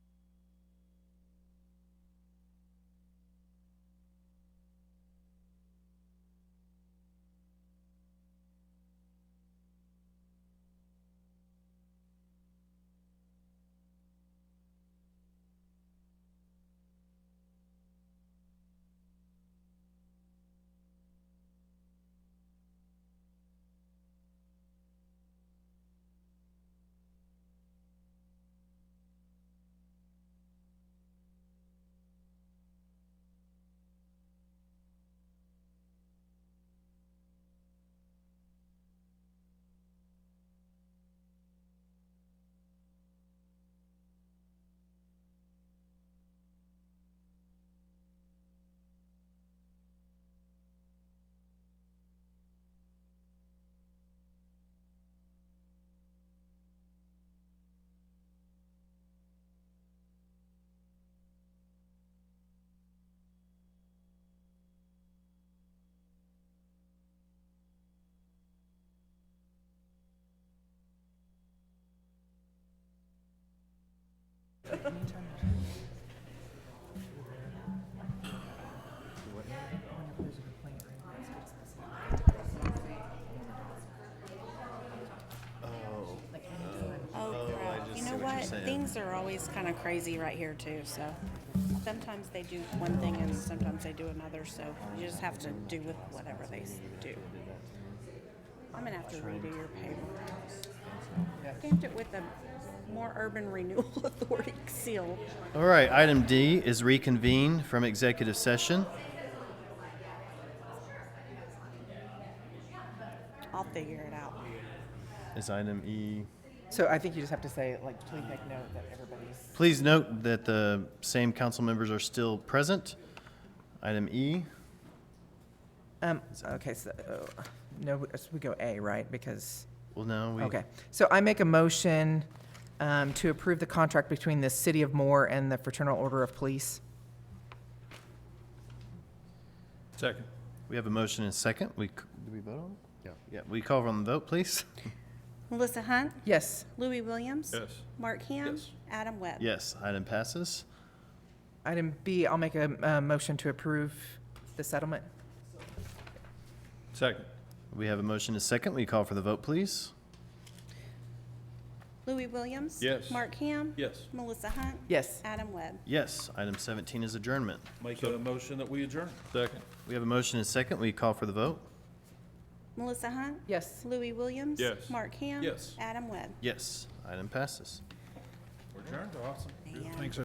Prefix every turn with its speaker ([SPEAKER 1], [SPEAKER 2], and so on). [SPEAKER 1] Oh,
[SPEAKER 2] saying.
[SPEAKER 1] Things are always kind of crazy right here too, so sometimes they do one thing and sometimes they do another, so you just have to do with whatever they s- do. I'm gonna have to redo your paper. Stamped it with a more urban renewal authority seal.
[SPEAKER 2] All right, item D is reconvene from executive session.
[SPEAKER 1] I'll figure it out.
[SPEAKER 2] Is item E.
[SPEAKER 3] So I think you just have to say, like, please make note that everybody's.
[SPEAKER 2] Please note that the same council members are still present. Item E.
[SPEAKER 3] Um, okay, so, uh, no, so we go A, right? Because,
[SPEAKER 2] Well, no, we.
[SPEAKER 3] okay. So I make a motion um, to approve the contract between the City of Moore and the Fraternal Order of Police.
[SPEAKER 4] Second.
[SPEAKER 2] We have a motion and second. We. c- Did we vote on it? Yeah. Yeah. We call on the vote, please.
[SPEAKER 1] Melissa Hunt,
[SPEAKER 3] Yes,
[SPEAKER 1] Louis Williams.
[SPEAKER 4] Yes.
[SPEAKER 1] Mark Ham.
[SPEAKER 4] Yes.
[SPEAKER 1] Adam Webb.
[SPEAKER 2] Yes. Item passes.
[SPEAKER 3] item B, I'll make a, uh motion to approve the settlement.
[SPEAKER 4] Second.
[SPEAKER 2] We have a motion and second. We call for the vote, please.
[SPEAKER 1] Louis Williams.
[SPEAKER 4] Yes.
[SPEAKER 1] Mark Ham.
[SPEAKER 4] Yes.
[SPEAKER 1] Melissa Hunt.
[SPEAKER 3] Yes,
[SPEAKER 1] Adam Webb.
[SPEAKER 2] Yes. Item 17 is adjournment.
[SPEAKER 5] Make a motion that we adjourn.
[SPEAKER 4] Second.
[SPEAKER 2] We have a motion and second. We call for the vote.
[SPEAKER 1] Melissa Hunt.
[SPEAKER 3] yes.
[SPEAKER 1] Louis Williams.
[SPEAKER 4] Yes.
[SPEAKER 1] Mark Ham.
[SPEAKER 5] Yes.
[SPEAKER 1] Adam Webb.
[SPEAKER 2] Yes. Item passes.
[SPEAKER 5] We're adjourned, awesome.
[SPEAKER 1] Man.
[SPEAKER 4] Thanks,